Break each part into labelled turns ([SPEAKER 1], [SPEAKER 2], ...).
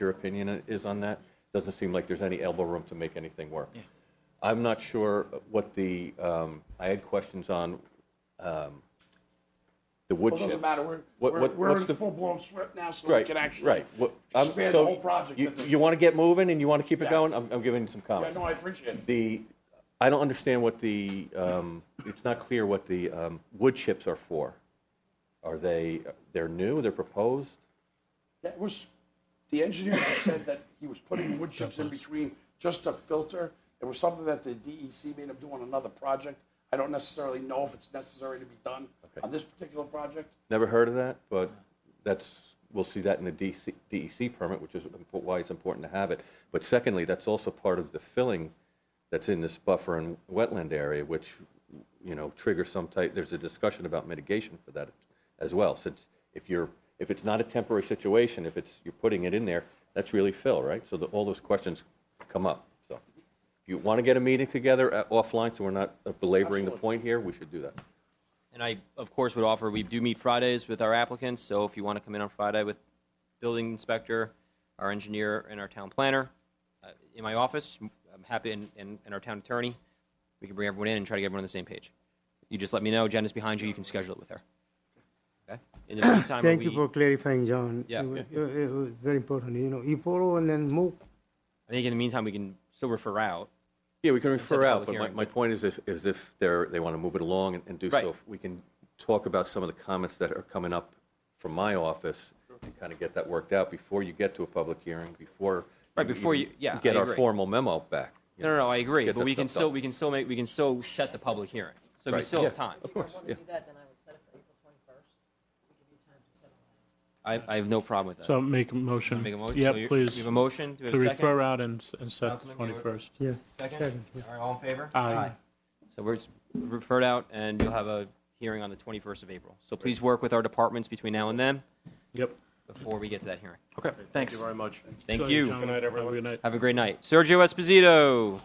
[SPEAKER 1] your opinion is on that. Doesn't seem like there's any elbow room to make anything work. I'm not sure what the, um, I had questions on um, the wood
[SPEAKER 2] Well,
[SPEAKER 1] chips.
[SPEAKER 2] doesn't matter, we're,
[SPEAKER 1] What-
[SPEAKER 2] we're,
[SPEAKER 1] what-
[SPEAKER 2] we're
[SPEAKER 1] what's
[SPEAKER 2] in
[SPEAKER 1] the-
[SPEAKER 2] full-blown SWIP now, so we
[SPEAKER 1] Right,
[SPEAKER 2] can actually.
[SPEAKER 1] right. What- I'm-
[SPEAKER 2] expand the
[SPEAKER 1] so
[SPEAKER 2] whole project
[SPEAKER 1] You,
[SPEAKER 2] at the-
[SPEAKER 1] you want to get moving and you want to keep it
[SPEAKER 2] Yeah.
[SPEAKER 1] going? I'm, I'm giving you some
[SPEAKER 2] Yeah,
[SPEAKER 1] comments.
[SPEAKER 2] no, I appreciate it.
[SPEAKER 1] The, I don't understand what the, um, it's not clear what the um, wood chips are for. Are they, they're new, they're proposed?
[SPEAKER 2] That was, the engineer said that he was putting wood chips in between just to filter. It was something that the DEC made him do on another project. I don't necessarily know if it's necessary to be done on this particular project.
[SPEAKER 1] Never heard of that, but that's, we'll see that in the DC DEC E permit, which is impo- why it's important to have it. But secondly, that's also part of the filling that's in this buffer and wetland area, which, you know, triggers some type, there's a discussion about mitigation for that as well, since if you're, if it's not a temporary situation, if it's, you're putting it in there, that's really fill, right? So the- all those questions come up, so. If you want to get a meeting together uh, offline, so we're not uh, belaboring the
[SPEAKER 2] Absolutely.
[SPEAKER 1] point here, we should do that.
[SPEAKER 3] And I, of course, would offer, we do meet Fridays with our applicants, so if you want to come in on Friday with building inspector, our engineer, and our town planner, uh, in my office, I'm happy, and, and, and our town attorney, we can bring everyone in and try to get everyone on the same page. You just let me know, Jen is behind you, you can schedule it with her. Okay? In the meantime,
[SPEAKER 4] Thank you
[SPEAKER 3] we-
[SPEAKER 4] for clarifying, John.
[SPEAKER 3] Yeah.
[SPEAKER 4] It wa- it- it was very important, you know, you follow and then move.
[SPEAKER 3] I think in the meantime, we can still refer out.
[SPEAKER 1] Yeah, we can
[SPEAKER 3] set
[SPEAKER 1] refer
[SPEAKER 3] the
[SPEAKER 1] out,
[SPEAKER 3] public
[SPEAKER 1] but my,
[SPEAKER 3] hearing.
[SPEAKER 1] my point is if, is if they're, they want to move it along and- and do
[SPEAKER 3] Right.
[SPEAKER 1] so, we can talk about some of the comments that are coming up from my office and kind of get that worked out before you get to a public hearing, before.
[SPEAKER 3] Right, before
[SPEAKER 1] even
[SPEAKER 3] you- yeah,
[SPEAKER 1] Get
[SPEAKER 3] I
[SPEAKER 1] our
[SPEAKER 3] agree.
[SPEAKER 1] formal memo back. you
[SPEAKER 3] No, no,
[SPEAKER 1] know.
[SPEAKER 3] no, I agree,
[SPEAKER 1] Get
[SPEAKER 3] but
[SPEAKER 1] that
[SPEAKER 3] we can
[SPEAKER 1] stuff
[SPEAKER 3] still,
[SPEAKER 1] done.
[SPEAKER 3] we can still make, we can still set the public hearing, so we
[SPEAKER 1] Right,
[SPEAKER 3] still have
[SPEAKER 1] yeah,
[SPEAKER 3] time.
[SPEAKER 1] Of
[SPEAKER 5] If
[SPEAKER 1] course,
[SPEAKER 5] I want
[SPEAKER 1] yeah.
[SPEAKER 5] to do that, then I would set it for April 21st. to give you time to settle on it.
[SPEAKER 3] I, I have no problem with that.
[SPEAKER 6] So make a motion.
[SPEAKER 3] Make a motion?
[SPEAKER 6] Yeah,
[SPEAKER 3] So you-
[SPEAKER 6] please.
[SPEAKER 3] We have a motion, do we
[SPEAKER 6] To
[SPEAKER 3] have a second?
[SPEAKER 6] refer out and, and set the
[SPEAKER 3] Councilman Mueller.
[SPEAKER 6] 21st.
[SPEAKER 4] Yes.
[SPEAKER 3] Second? All right, all in favor?
[SPEAKER 6] Aye.
[SPEAKER 3] So we're s- referred out, and you'll have a hearing on the 21st of April. So please work with our departments between now and then,
[SPEAKER 6] Yep.
[SPEAKER 3] before we get to that hearing.
[SPEAKER 7] Okay, thanks. Thank you very much.
[SPEAKER 3] Thank you.
[SPEAKER 6] Good night, everyone. Good night.
[SPEAKER 3] Have a great night. Sergio Esposito,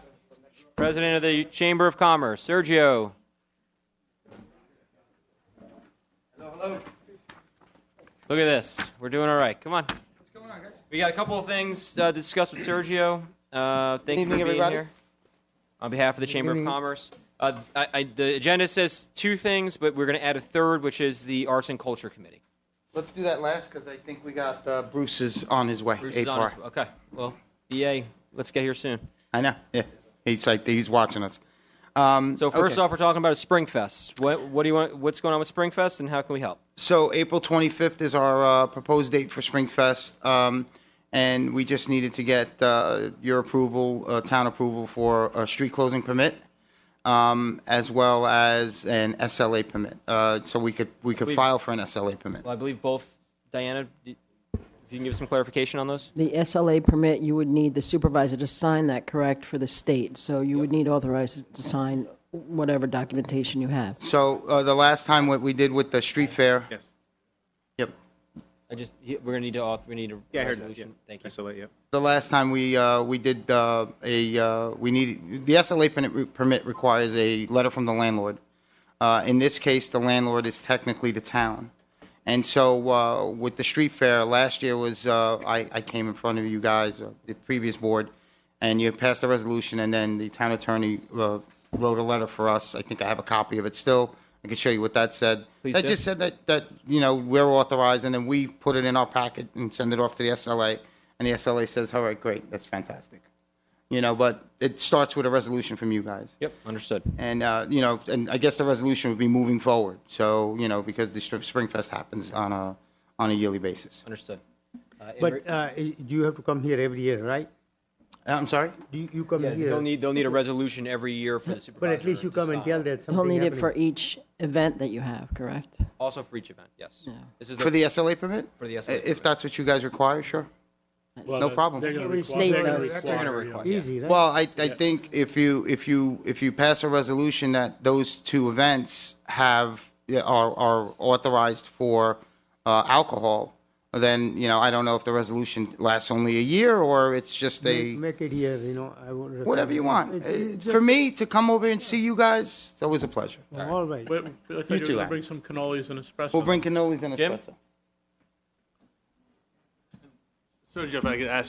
[SPEAKER 3] President of the Chamber of Commerce. Sergio. Look at this. We're doing all right. Come on. We got a couple of things uh, to discuss with Sergio. Uh, thanks for
[SPEAKER 7] evening,
[SPEAKER 3] being
[SPEAKER 7] everybody.
[SPEAKER 3] here. On behalf of the Chamber of
[SPEAKER 4] evening.
[SPEAKER 3] Commerce, uh, I, I, the agenda says two things, but we're going to add a third, which is the Arts and Culture Committee.
[SPEAKER 7] Let's do that last because I think we got uh, Bruce is on his way.
[SPEAKER 3] Bruce is on his-
[SPEAKER 7] APAR.
[SPEAKER 3] Okay. Well, EA, let's get here soon.
[SPEAKER 7] I know. Yeah, he's like he's watching us. Um,
[SPEAKER 3] So first
[SPEAKER 7] okay.
[SPEAKER 3] off, we're talking about a Springfest. What, what do you want? What's going on with Springfest, and how can we help?
[SPEAKER 7] so April 25th is our uh, proposed date for Springfest, um, and we just needed to get uh, your approval, uh, town approval for a street closing permit, um, as well as an SLA permit. Uh, so we could we could
[SPEAKER 3] We-
[SPEAKER 7] file for an SLA permit.
[SPEAKER 3] Well, I believe both Diana. d- If you can give some clarification on those.
[SPEAKER 5] The SLA permit, you would need the supervisor to sign that, correct, for the state? So you would need authorized to sign whatever documentation you have.
[SPEAKER 7] So uh, the last time what we did with the street fair. Yes. Yep.
[SPEAKER 3] I just he- we're gonna need to auth- we need a
[SPEAKER 8] Yeah, I heard that.
[SPEAKER 3] resolution.
[SPEAKER 8] yeah.
[SPEAKER 3] Thank
[SPEAKER 8] I
[SPEAKER 3] you.
[SPEAKER 8] saw that, yeah.
[SPEAKER 7] The last time we, uh, we did uh, a, uh, we needed, the SLA permit- permit requires a letter from the landlord. Uh, In this case, the landlord is technically the town. And so uh, with the street fair, last year was, uh, I I came in front of you guys, uh, the previous board, and you passed a resolution, and then the town attorney uh, wrote a letter for us. I think I have a copy of it still. I can show you what that said.
[SPEAKER 3] Please
[SPEAKER 7] That
[SPEAKER 3] do.
[SPEAKER 7] just said that, that, you know, we're authorized, and then we put it in our packet and send it off to the SLA, and the SLA says, all right, great, that's fantastic. You know, but it starts with a resolution from you guys.
[SPEAKER 3] Yep, understood.
[SPEAKER 7] And, uh, you know, and I guess the resolution would be moving forward, so, you know, because the Stri- Springfest happens on a, on a yearly basis.
[SPEAKER 3] Understood. Uh, in re-
[SPEAKER 4] But uh, you have to come here every year, right?
[SPEAKER 7] Uh, I'm sorry?
[SPEAKER 4] You, you come
[SPEAKER 3] yeah, they'll
[SPEAKER 4] here,
[SPEAKER 3] need they'll need a resolution every year for the supervisor.
[SPEAKER 4] but at least you
[SPEAKER 3] to
[SPEAKER 4] come and
[SPEAKER 3] sign.
[SPEAKER 4] tell that something
[SPEAKER 5] He'll need it
[SPEAKER 4] happening.
[SPEAKER 5] for each event that you have, correct?
[SPEAKER 3] Also for each event. Yes. This is
[SPEAKER 7] For the SLA permit?
[SPEAKER 3] For the SLA
[SPEAKER 7] If
[SPEAKER 3] permit.
[SPEAKER 7] that's what you guys require, sure.
[SPEAKER 6] Well,
[SPEAKER 7] No
[SPEAKER 6] that-
[SPEAKER 7] problem.
[SPEAKER 6] They're going to
[SPEAKER 5] Every
[SPEAKER 6] require.
[SPEAKER 5] state
[SPEAKER 6] they're gonna
[SPEAKER 5] does.
[SPEAKER 3] They're gonna
[SPEAKER 6] require,
[SPEAKER 3] require.
[SPEAKER 6] yeah.
[SPEAKER 3] yeah.
[SPEAKER 4] Easy, right?
[SPEAKER 7] Well, I, I think if you, if you, if you pass a resolution that those two events have, are, are authorized for uh, alcohol, then, you know, I don't know if the resolution lasts only a year or it's just a,
[SPEAKER 4] Make it here, you know, I would.
[SPEAKER 7] whatever you
[SPEAKER 4] recommend.
[SPEAKER 7] want.
[SPEAKER 4] It- it
[SPEAKER 7] Uh, For me, to come over and see you guys, it's always a pleasure.
[SPEAKER 4] just- All right.
[SPEAKER 6] Wait, I thought you were
[SPEAKER 7] two
[SPEAKER 6] going to
[SPEAKER 7] lads.
[SPEAKER 6] bring some cannolis and espresso.
[SPEAKER 7] We'll bring cannolis and
[SPEAKER 3] Jim?
[SPEAKER 7] espresso.
[SPEAKER 6] So Jeff, I could ask